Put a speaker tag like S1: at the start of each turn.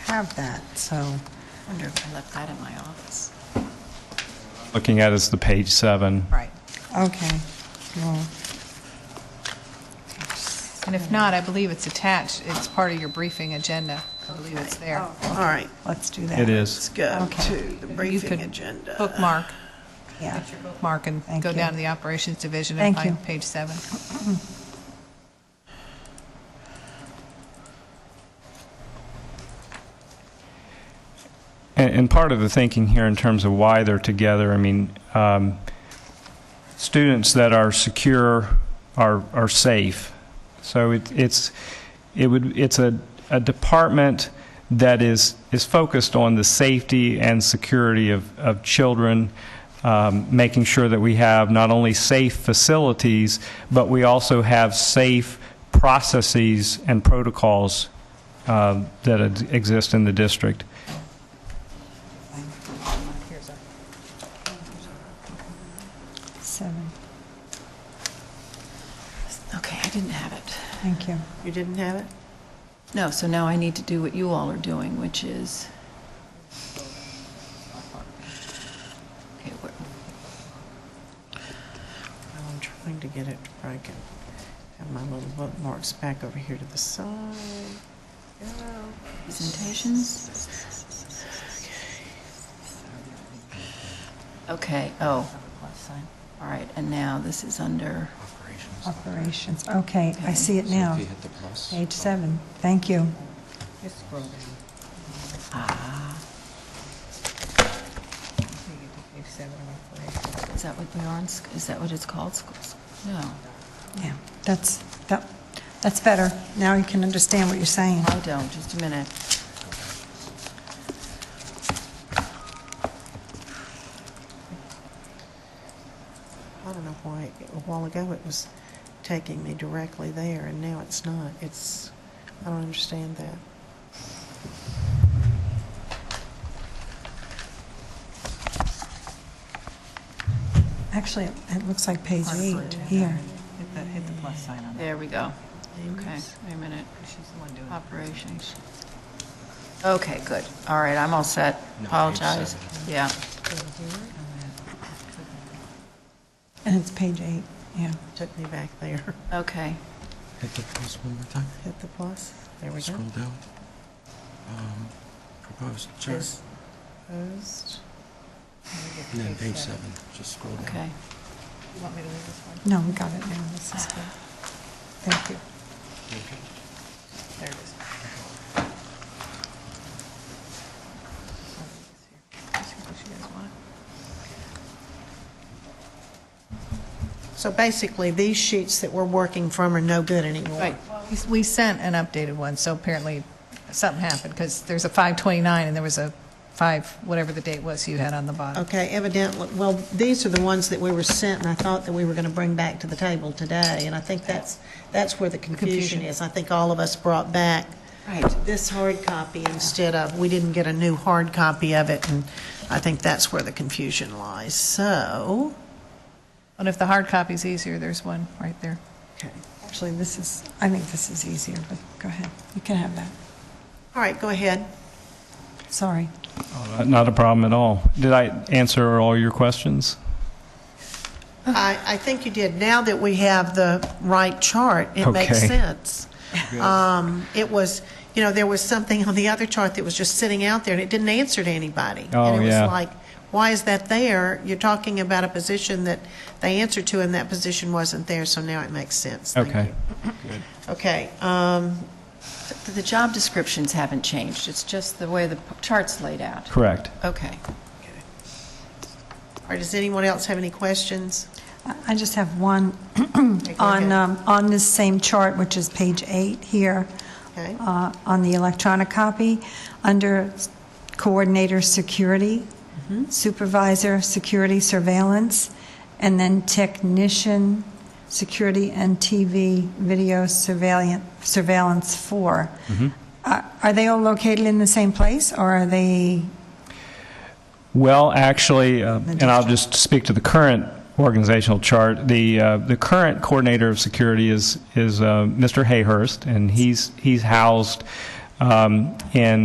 S1: have that, so.
S2: Wonder if I left that in my office.
S3: Looking at is the page seven.
S2: Right.
S1: Okay. Well,
S2: And if not, I believe it's attached, it's part of your briefing agenda. I believe it's there.
S4: All right,
S1: let's do that.
S3: It
S4: let's
S3: is.
S4: go to
S1: Okay.
S4: the
S2: You
S4: briefing
S2: could
S4: agenda.
S2: Bookmark,
S1: Yeah.
S2: bookmark and
S1: Thank
S2: go
S1: you.
S2: down to the operations division
S1: Thank
S2: and
S1: you.
S2: find page seven.
S3: And, and part of the thinking here in terms of why they're together, I mean, um, students that are secure are, are safe. So it, it's, it would, it's a, a department that is, is focused on the safety and security of, of children, um, making sure that we have not only safe facilities, but we also have safe processes and protocols um, that ex- exist in the district.
S1: Seven,
S2: Okay, I didn't have it.
S1: thank you.
S4: You didn't have it?
S2: No, so now I need to do what you all are doing, which is... Okay, where-
S4: Now I'm trying to get it to break it. Have my little bookmarks back over here to the side. Go.
S2: Presentations? Okay, oh. All right, and now this is under,
S1: Operations, okay, I
S2: Okay.
S1: see it now.
S5: If you hit the plus.
S1: Page seven, thank you.
S2: is that what we are on, sc- is that what it's called, schools? No,
S1: Yeah, that's, that, that's better. Now you can understand what you're saying.
S2: I don't, just a minute.
S4: I don't know why, a while ago it was taking me directly there, and now it's not. It's, I don't understand that.
S1: Actually, it looks like page eight here.
S6: Hit the, hit the plus sign on that.
S2: There we go. Okay, wait a minute,
S6: She's the one doing it.
S2: operations. Okay, good, all right, I'm all set,
S5: No, page
S2: apologize. Yeah,
S1: And it's page eight, yeah.
S4: Took me back there.
S2: okay,
S5: Hit the plus one more time.
S4: Hit the plus. There we go.
S5: Scroll down. Um, proposed charge.
S4: Is Opposed.
S5: And then page seven. Just scroll down.
S2: okay.
S6: You want me to leave this one?
S1: No, we got it now, this is good. Thank you.
S6: There it is.
S4: So basically, these sheets that we're working from are no good anymore.
S2: Right. We- We sent an updated one, so apparently something happened, because there's a 529, and there was a 5, whatever the date was you had on the bottom.
S4: Okay, evidently, well, these are the ones that we were sent, and I thought that we were going to bring back to the table today, and I think that's, that's where the confusion
S2: Confusion.
S4: is. I think all of us brought back
S2: Right.
S4: this hard copy instead of, we didn't get a new hard copy of it, and I think that's where the confusion lies. So,
S2: And if the hard copy's easier, there's one right there.
S4: okay.
S1: Actually, this is, I think this is easier, but go ahead, you can have that.
S4: All right, go ahead.
S1: Sorry.
S3: Uh, Not a problem at all. Did I answer all your questions?
S4: I, I think you did. Now that we have the right chart, it makes
S3: Okay.
S4: sense. Um, It was, you know, there was something on the other chart that was just sitting out there, and it didn't answer to anybody.
S3: Oh,
S4: And it
S3: yeah.
S4: was like, why is that there? You're talking about a position that they answered to, and that position wasn't there, so now it makes sense. Thank
S3: Okay.
S4: you. Okay, um,
S7: The- The job descriptions haven't changed, it's just the way the p- chart's laid out.
S3: Correct.
S7: Okay.
S4: all right, does anyone else have any questions?
S1: I I just have one
S4: Okay, go
S1: on,
S4: ahead.
S1: um, on this same chart, which is page eight here,
S4: Okay.
S1: uh, on the electronic copy, under coordinator security,
S4: Mm-hmm.
S1: supervisor security surveillance, and then technician security and TV video surveillance, surveillance four.
S4: Mm-hmm.
S1: Are are they all located in the same place, or are they,
S3: Well, actually, uh, and I'll just speak to the current organizational chart. The uh, the current coordinator of security is is uh, Mr. Hayhurst, and he's he's housed um, in